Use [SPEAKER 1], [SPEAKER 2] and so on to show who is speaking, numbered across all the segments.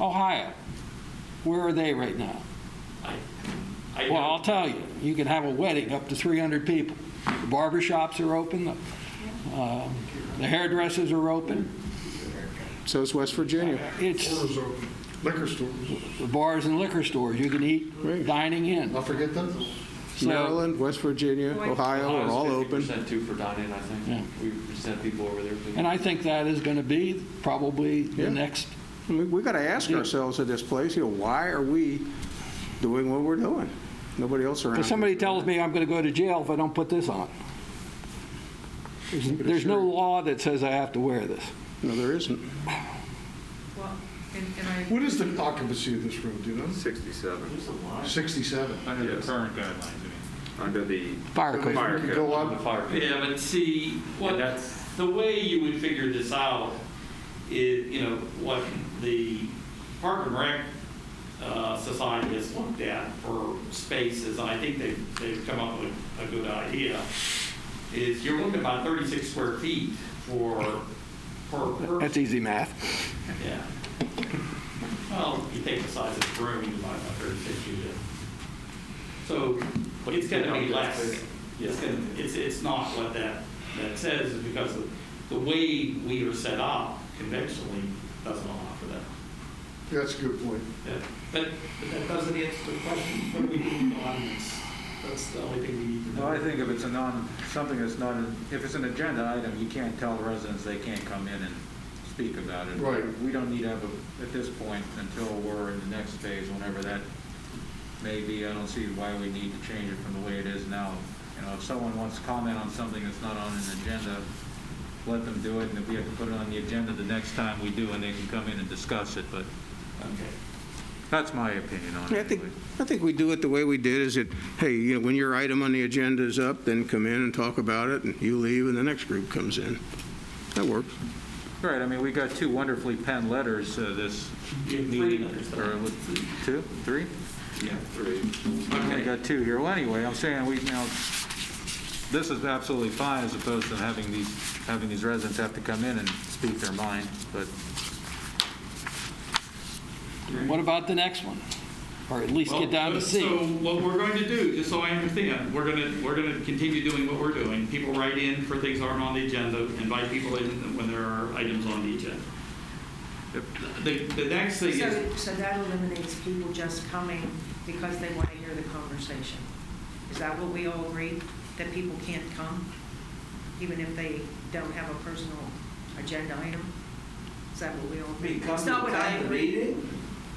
[SPEAKER 1] Ohio, where are they right now?
[SPEAKER 2] I, I
[SPEAKER 1] Well, I'll
[SPEAKER 2] don't,
[SPEAKER 1] tell you, you can have a wedding up to 300 people. The barber shops are open, the, um, the hairdressers are open,
[SPEAKER 3] So is West Virginia.
[SPEAKER 1] it's
[SPEAKER 4] Stores open, liquor stores.
[SPEAKER 1] the bars and liquor stores, you can eat
[SPEAKER 3] Right.
[SPEAKER 1] dining in.
[SPEAKER 4] I'll forget those.
[SPEAKER 1] So-
[SPEAKER 3] Maryland, West Virginia, Ohio are
[SPEAKER 2] Ohio's
[SPEAKER 3] all open.
[SPEAKER 2] 50% too for dining, I
[SPEAKER 1] Yeah.
[SPEAKER 2] think. We sent people over there.
[SPEAKER 1] And I think that is going to be probably
[SPEAKER 3] Yeah.
[SPEAKER 1] the next,
[SPEAKER 3] I mean, we got to ask
[SPEAKER 1] Yeah.
[SPEAKER 3] ourselves at this place, you know, why are we doing what we're doing? Nobody else around.
[SPEAKER 1] because somebody tells me I'm going to go to jail if I don't put this on. There's- There's no law that says I have to wear this.
[SPEAKER 3] No, there isn't.
[SPEAKER 5] Well, and, and I.
[SPEAKER 4] What is the occupancy of this room, do you know?
[SPEAKER 6] 67,
[SPEAKER 4] 67.
[SPEAKER 7] Under the
[SPEAKER 6] Yes.
[SPEAKER 7] current guidelines, I mean.
[SPEAKER 6] under the
[SPEAKER 1] Fire
[SPEAKER 4] So
[SPEAKER 1] code.
[SPEAKER 4] they
[SPEAKER 6] Fire
[SPEAKER 4] could
[SPEAKER 6] code.
[SPEAKER 4] Go
[SPEAKER 2] The
[SPEAKER 4] up,
[SPEAKER 2] fire.
[SPEAKER 8] Yeah, but see, what,
[SPEAKER 2] And that's-
[SPEAKER 8] the way you would figure this out is, you know, what the Park and Rec uh, Society has looked at for spaces, and I think they've, they've come up with a good idea, is you're looking about 36 square feet for, per person.
[SPEAKER 1] That's easy math.
[SPEAKER 8] Yeah. Well, you take the size of the room, you divide by thirty-six, you get. So it's gonna be less. It's gonna, it's, it's not what that, that says, is because of the way we are set up conventionally doesn't allow for that.
[SPEAKER 4] that's a good point.
[SPEAKER 8] Yeah. But, but that doesn't answer the question, what do we need on this? That's the only thing we need to know.
[SPEAKER 7] Well, I think if it's a non, something that's not, an- if it's an agenda item, you can't tell the residents they can't come in and speak about it.
[SPEAKER 4] Right.
[SPEAKER 7] We don't need to have, a- at this point, until we're in the next phase, whenever that may be, I don't see why we need to change it from the way it is now. You know, if someone wants to comment on something that's not on an agenda, let them do it, and if we have to put it on the agenda the next time we do, and they can come in and discuss it, but
[SPEAKER 8] Okay.
[SPEAKER 7] that's my opinion on it.
[SPEAKER 3] Yeah, I think,
[SPEAKER 7] anyway.
[SPEAKER 3] I think we do it the way we did, is that, hey, you know, when your item on the agenda is up, then come in and talk about it, and you leave, and the next group comes in. That works.
[SPEAKER 7] Right, I mean, we got two wonderfully penned letters uh, this
[SPEAKER 8] You have three
[SPEAKER 7] meeting.
[SPEAKER 8] letters.
[SPEAKER 7] or was it Two, three?
[SPEAKER 8] Yeah.
[SPEAKER 7] I only got two here. Well, anyway, I'm saying we, now, this is absolutely fine as opposed to having these, having these residents have to come in and speak their mind, but
[SPEAKER 1] What about the next one? Or at least get down to
[SPEAKER 9] uh,
[SPEAKER 8] Well, uh,
[SPEAKER 1] C.
[SPEAKER 8] So what we're going to do, just so I understand, we're going to, we're going to continue doing what we're doing. People write in for things that aren't on the agenda, invite people in when there are items on the agenda. The, the next thing is,
[SPEAKER 5] So, so that eliminates people just coming because they want to hear the conversation. Is that what we all agree? That people can't come, even if they don't have a personal agenda item? Is that what we all agree? It's not what I agree.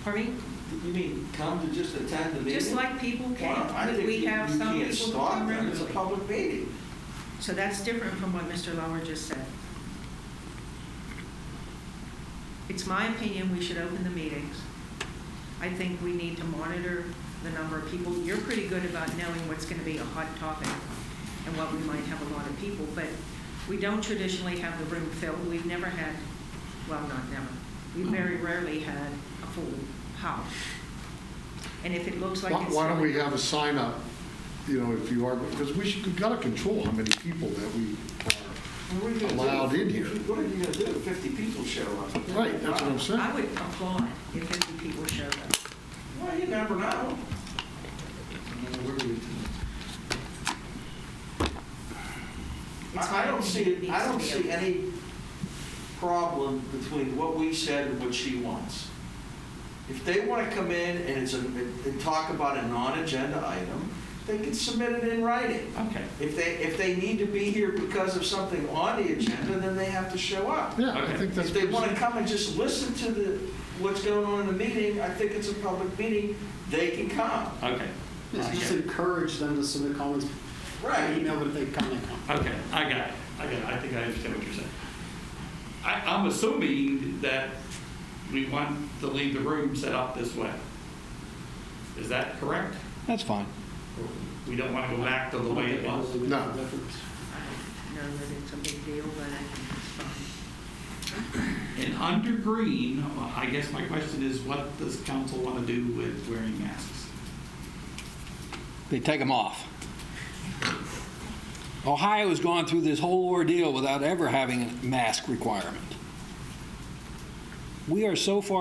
[SPEAKER 5] Pardon me?
[SPEAKER 10] You mean come to just attend the meeting?
[SPEAKER 5] Just like people
[SPEAKER 10] Well, I
[SPEAKER 5] can, but
[SPEAKER 10] think
[SPEAKER 5] we
[SPEAKER 10] you-
[SPEAKER 5] have some
[SPEAKER 10] You can't
[SPEAKER 5] people who
[SPEAKER 10] stop
[SPEAKER 5] come
[SPEAKER 10] them, it's a
[SPEAKER 5] regularly.
[SPEAKER 10] public meeting.
[SPEAKER 5] So that's different from what Mr. Lauer just said. It's my opinion we should open the meetings. I think we need to monitor the number of people. You're pretty good about knowing what's going to be a hot topic and what we might have a lot of people, but we don't traditionally have the room filled. We've never had, well, not never, we very rarely had a full house. And if it looks like
[SPEAKER 4] Why
[SPEAKER 5] it's.
[SPEAKER 4] why don't we have a sign up, you know, if you are, because we should, we've got to control how many people that we are.
[SPEAKER 10] And what are you gonna do?
[SPEAKER 4] Allowed in here.
[SPEAKER 10] What are you gonna do if 50 people show up?
[SPEAKER 4] Right, that's what I'm saying.
[SPEAKER 5] I would applaud if 50 people showed up.
[SPEAKER 10] Well, you never know.
[SPEAKER 5] It's
[SPEAKER 10] I I don't
[SPEAKER 5] my
[SPEAKER 10] see,
[SPEAKER 5] opinion
[SPEAKER 10] it.
[SPEAKER 5] it
[SPEAKER 10] I
[SPEAKER 5] needs to
[SPEAKER 10] don't
[SPEAKER 5] be
[SPEAKER 10] see
[SPEAKER 5] open.
[SPEAKER 10] any problem between what we said and what she wants. If they want to come in and it's a, and talk about a non-agenda item, they can submit it in writing.
[SPEAKER 8] okay.
[SPEAKER 10] If they, if they need to be here because of something on the agenda, then they have to show up.
[SPEAKER 4] Yeah, I
[SPEAKER 8] Okay.
[SPEAKER 4] think that's.
[SPEAKER 10] If they want to come and just listen to the, what's going on in the meeting, I think it's a public meeting, they can come.
[SPEAKER 8] Okay.
[SPEAKER 9] Just encourage them to submit comments by
[SPEAKER 10] Right.
[SPEAKER 9] email, but if they come, they come.
[SPEAKER 8] Okay, I got it. I got it. I think I understand what you're saying. I, I'm assuming that we want to leave the room set up this way. Is that correct?
[SPEAKER 1] That's fine.
[SPEAKER 8] We don't want to go back to the way it was?
[SPEAKER 4] No.
[SPEAKER 5] I don't know that it's a big deal, but I think it's fine.
[SPEAKER 8] And under green, I guess my question is, what does council want to do with wearing masks?
[SPEAKER 1] They take them off. Ohio has gone through this whole ordeal without ever having a mask requirement. We are so far